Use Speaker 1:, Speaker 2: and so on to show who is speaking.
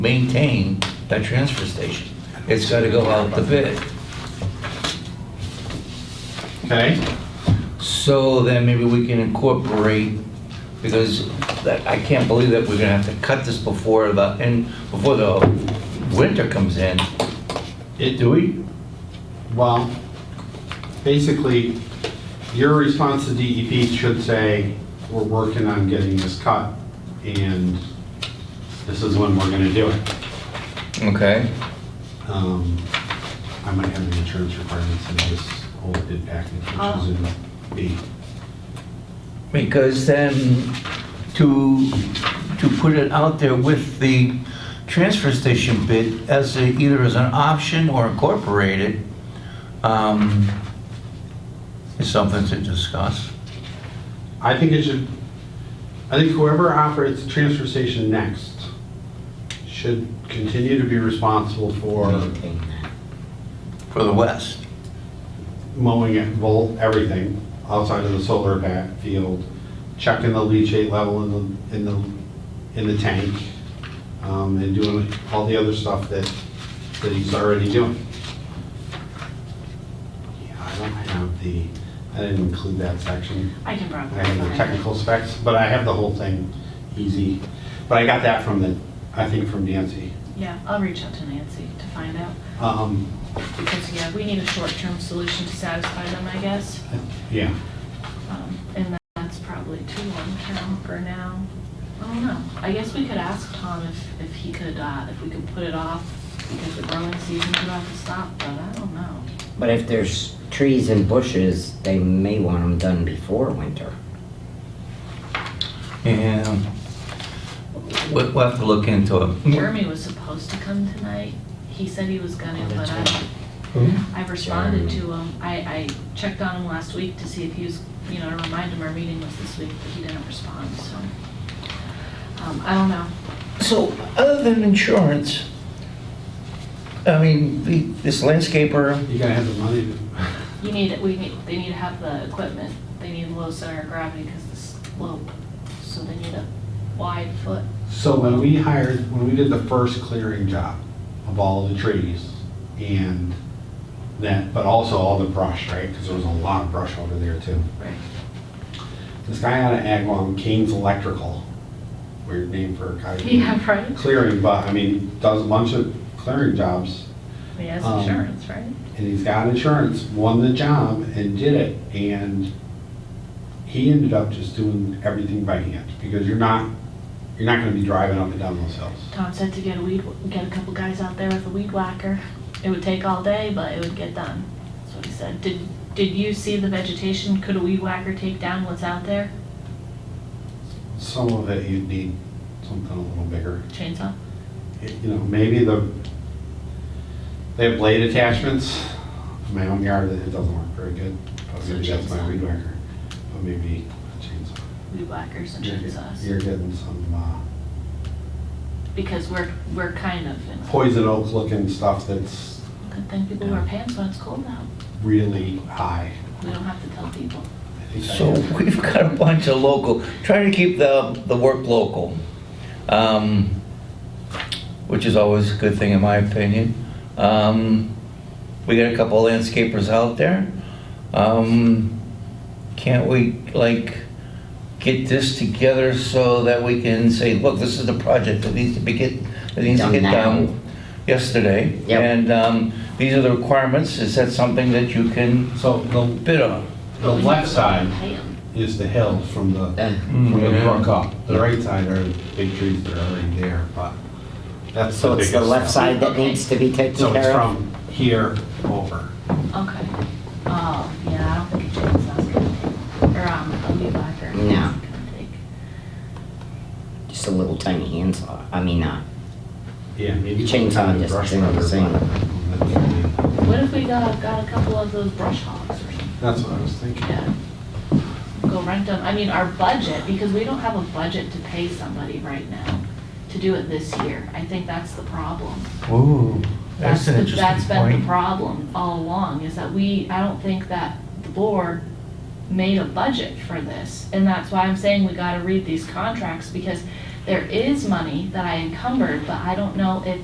Speaker 1: maintain that transfer station. It's got to go out the bid.
Speaker 2: Okay,
Speaker 1: So then maybe we can incorporate, because that, I can't believe that we're gonna have to cut this before the, and before the winter comes in.
Speaker 2: it, do we? Well, basically, your response to DEP should say, we're working on getting this cut, and this is when we're gonna do it.
Speaker 1: Okay.
Speaker 2: Um, I might have the insurance requirements in this whole bid package, which is in B.
Speaker 1: Because then to, to put it out there with the transfer station bid as a, either as an option or incorporated, um, is something to discuss.
Speaker 2: I think it should, I think whoever operates the transfer station next should continue to be responsible for
Speaker 1: For the west.
Speaker 2: mowing it, well, everything outside of the solar back field, checking the leachate level in the, in the, in the tank, um, and doing all the other stuff that, that he's already doing. Yeah, I don't have the, I didn't include that section.
Speaker 3: I can probably.
Speaker 2: I have the
Speaker 3: find it.
Speaker 2: technical specs, but I have the whole thing easy. But I got that from the, I think from Nancy.
Speaker 3: Yeah, I'll reach out to Nancy to find out,
Speaker 2: Um,
Speaker 3: because, yeah, we need a short-term solution to satisfy them, I guess.
Speaker 2: yeah.
Speaker 3: Um, And that's probably too long-term for now. I don't know. I guess we could ask Tom if, if he could, uh, if we could put it off, because the growing season's about to stop, but I don't know.
Speaker 4: But if there's trees and bushes, they may want them done before winter.
Speaker 1: Yeah. We'll we'll have to look into it.
Speaker 3: Jeremy was supposed to come tonight. He said he was gonna, but I, I've responded to him. I, I checked on him last week to see if he was, you know, to remind him our meeting was this week, but he didn't respond, so. Um, I don't know.
Speaker 1: So, other than insurance, I mean, the- this landscaper,
Speaker 2: You gotta have the money to.
Speaker 3: You need, we need, they need to have the equipment. They need low center of gravity because the slope, so they need a wide foot.
Speaker 2: So when we hired, when we did the first clearing job of all the trees and that, but also all the brush, right? Because there was a lot of brush over there too.
Speaker 3: Right.
Speaker 2: This guy out of Agawam, Kane's Electrical, weird name for a guy. who-
Speaker 3: Yeah, right.
Speaker 2: Clearing, but I mean, does a bunch of clearing jobs
Speaker 3: He has
Speaker 2: Um,
Speaker 3: insurance, right?
Speaker 2: and he's got insurance, won the job and did it. And he ended up just doing everything by hand because you're not, you're not gonna be driving up and down those hills.
Speaker 3: Tom said to get a weed, get a couple guys out there with a weed whacker. It would take all day, but it would get done. That's what he said. Did, did you see the vegetation? Could a weed whacker take down what's out there?
Speaker 2: Some of it you'd need something a little bigger.
Speaker 3: Chainsaw?
Speaker 2: It- You know, maybe the, they have blade attachments. In My own yard, it doesn't work very good. But
Speaker 3: So
Speaker 2: maybe that's my
Speaker 3: chainsaw.
Speaker 2: weed whacker. But maybe a chainsaw.
Speaker 3: Weed whackers and
Speaker 2: You're get-
Speaker 3: chainsaws.
Speaker 2: You're getting some uh,
Speaker 3: Because we're, we're kind of in a,
Speaker 2: poison oak looking stuff that's
Speaker 3: good thing people wear pants when it's cold now.
Speaker 2: really high.
Speaker 3: We don't have to tell people.
Speaker 2: I think I
Speaker 1: so
Speaker 2: have-
Speaker 1: we've got a bunch of local, trying to keep the, the work local, um, which is always a good thing in my opinion. Um, We got a couple landscapers out there. Um, Can't we, like, get this together so that we can say, look, this is the project that needs to be get, that needs to
Speaker 4: Done
Speaker 1: get
Speaker 4: now.
Speaker 1: done yesterday?
Speaker 4: Yep.
Speaker 1: And um, these are the requirements. Is that something that you can
Speaker 2: So the,
Speaker 1: bid on?
Speaker 2: the left side
Speaker 3: Pay 'em.
Speaker 2: is the hill from the,
Speaker 4: Uh,
Speaker 2: from the
Speaker 1: Yeah.
Speaker 2: brook up. The right side are the big trees that are already there, but that's the
Speaker 4: So it's the
Speaker 2: biggest
Speaker 4: left
Speaker 2: stuff.
Speaker 4: side that needs to be taken
Speaker 2: So it's
Speaker 4: care of?
Speaker 2: from here over.
Speaker 3: Okay. Oh, yeah, I don't think a chainsaw's gonna take, or, um, a weed whacker is
Speaker 4: No.
Speaker 3: gonna take.
Speaker 4: Just a little tiny handsaw, I mean, uh,
Speaker 2: Yeah, maybe.
Speaker 4: Chainsaw
Speaker 2: kind of
Speaker 4: just
Speaker 2: brush
Speaker 4: doing the
Speaker 2: rubber,
Speaker 4: same.
Speaker 2: but-
Speaker 3: What if we got, got a couple of those brush hogs or something?
Speaker 2: That's what I was thinking.
Speaker 3: Yeah. Go rent them, I mean, our budget, because we don't have a budget to pay somebody right now to do it this year. I think that's the problem.
Speaker 1: Ooh,
Speaker 3: the- That's been the problem all along, is that we, I don't think that the board made a budget for this. And that's why I'm saying we gotta read these contracts, because There is money that I encumbered, but I don't know if